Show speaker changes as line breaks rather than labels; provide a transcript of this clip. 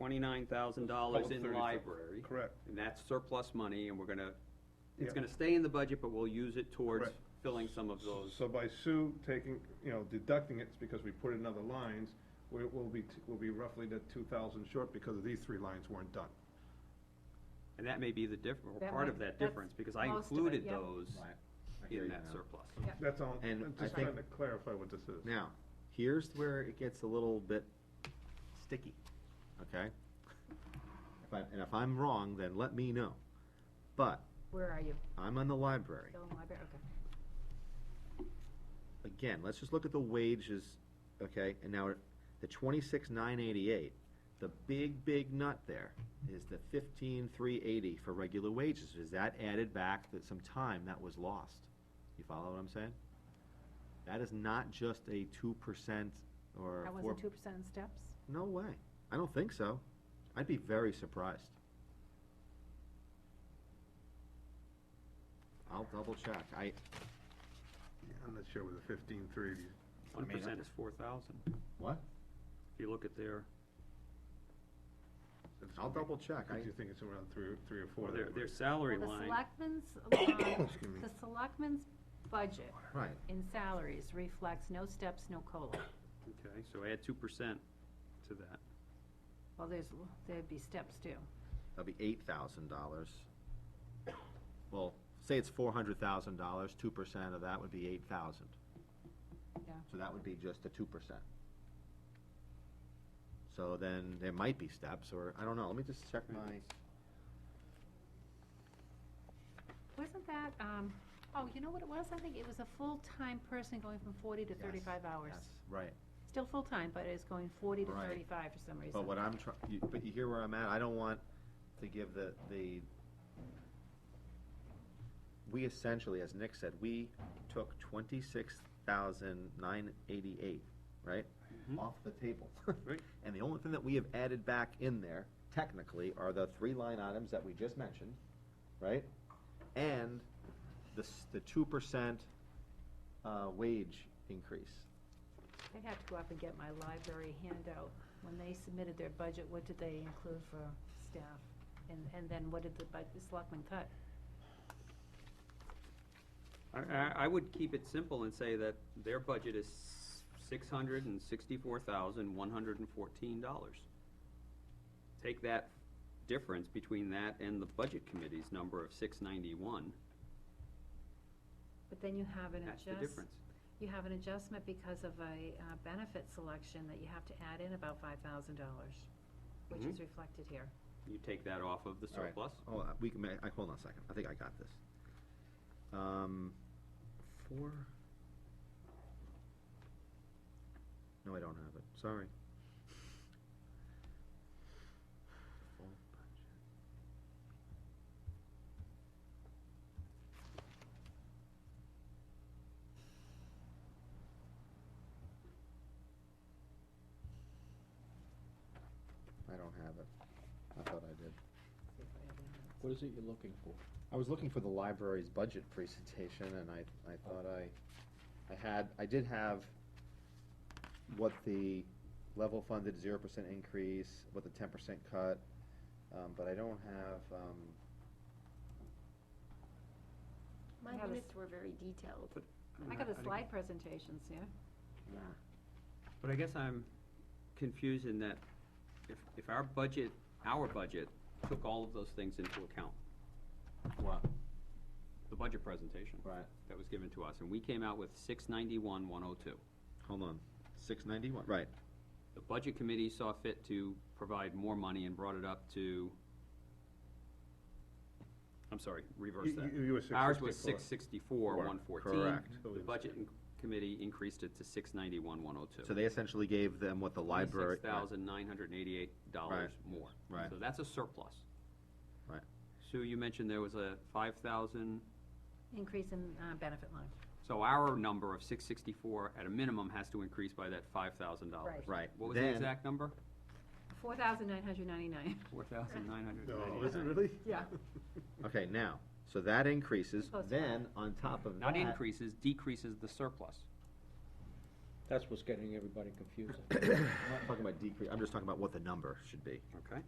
twenty-nine thousand dollars in library,
Correct.
and that's surplus money, and we're gonna, it's
Yeah.
gonna stay in the budget, but we'll use it towards
Correct.
filling some of those.
So by Sue taking, you know, deducting it, it's because we put it in other lines, we, we'll be, t- we'll be roughly the two thousand short because of these three lines weren't done.
And that may be the diff, or
That
part
might-
of that
that's
difference, because I
most of it,
included
yeah.
those
I hear
in
you
that
now.
surplus.
Yeah.
That's all,
And
I'm
I
just
think-
trying to clarify what this is.
Now, here's where it gets a little bit sticky, okay? If I- And if I'm wrong, then let me know. But
Where are you?
I'm on the library.
Still in library? Okay.
Again, let's just look at the wages, okay? And now, the twenty-six nine eighty-eight, the big, big nut there is the fifteen three eighty for regular wages. Is that added back that some time that was lost? You follow what I'm saying? That is not just a two percent or
That
four
wasn't two percent in steps?
No way. I don't think so. I'd be very surprised. I'll double check. I,
I'm not sure with the fifteen three,
One
I mean,
percent
I-
is four thousand,
what?
if you look at their,
it's.
I'll double check. I,
Do you think it's around three, three or four?
their,
that
their
were-
salary
Well, the
line.
selectmen's, uh,
Excuse me.
the selectmen's budget
right.
in salaries reflects no steps, no COLA.
Okay, so add two percent to that.
Well, there's, there'd be steps too.
That'll be eight thousand dollars. Well, say it's four hundred thousand dollars, two percent of that would be eight thousand.
Yeah.
So that would be just the two percent. So then there might be steps or, I don't know. Let me just check my,
Wasn't that, um, oh, you know what it was? I think it was a full-time person going from forty to
Yes,
thirty-five hours.
yes, right.
Still full-time, but it's going forty to
Right.
thirty-five for some reason.
But what I'm trying, you, but you hear where I'm at, I don't want to give the, the, we essentially, as Nick said, we took twenty-six thousand nine eighty-eight, right?
Mhm.
Off the table.
Right.
And the only thing that we have added back in there, technically, are the three line items that we just mentioned, right? And the, s- the two percent, uh, wage increase.
I'd have to go up and get my library handout. When they submitted their budget, what did they include for staff? And, and then what did the bud, the selectmen cut?
I, I, I would keep it simple and say that their budget is six hundred and sixty-four thousand, one hundred and fourteen dollars. Take that difference between that and the budget committee's number of six ninety-one,
But then you have an
that's the
adjust,
difference.
you have an adjustment because of a uh, benefit selection that you have to add in about five thousand dollars, which
Mhm.
is reflected here.
You take that off of the
All right.
surplus,
Oh, uh, we can, ma- I, hold on a second, I think I got this. Um, four? No, I don't have it, sorry. Full budget. I don't have it, I thought I did.
What is it you're looking for?
I was looking for the library's budget presentation, and I, I thought I, I had, I did have what the level funded zero percent increase, what the ten percent cut, um, but I don't have, um,
My
I have a
minutes were very detailed.
I got the slide presentations, yeah?
but I guess I'm confused in that if, if our budget, our budget took all of those things into account,
what?
the budget presentation
Right,
that was given to us, and we came out with six ninety-one, one oh two.
hold on, six ninety-one, right,
The budget committee saw fit to provide more money and brought it up to, I'm sorry, reverse
You- you-
that.
you were six
Ours was
sixty-four.
six sixty-four, one fourteen.
Correct.
The budget in- committee increased it to six ninety-one, one oh two.
so they essentially gave them what the library.
Six thousand nine hundred and eighty-eight dollars more.
Right.
So that's a surplus.
Right.
Sue, you mentioned there was a five thousand,
Increase in uh, benefit line.
so our number of six sixty-four at a minimum has to increase by that five thousand dollars.
Right.
Right,
What was the
then,
exact number?
Four thousand nine hundred ninety-nine.
Four thousand nine hundred and ninety-nine.
No, Oh, is it really?
Yeah.
okay, now, so that increases,
Close to
then, on top of that.
Not increases, decreases the surplus.
That's what's getting everybody confused.
I'm not talking about decrease, I'm just talking about what the number should be.
Okay.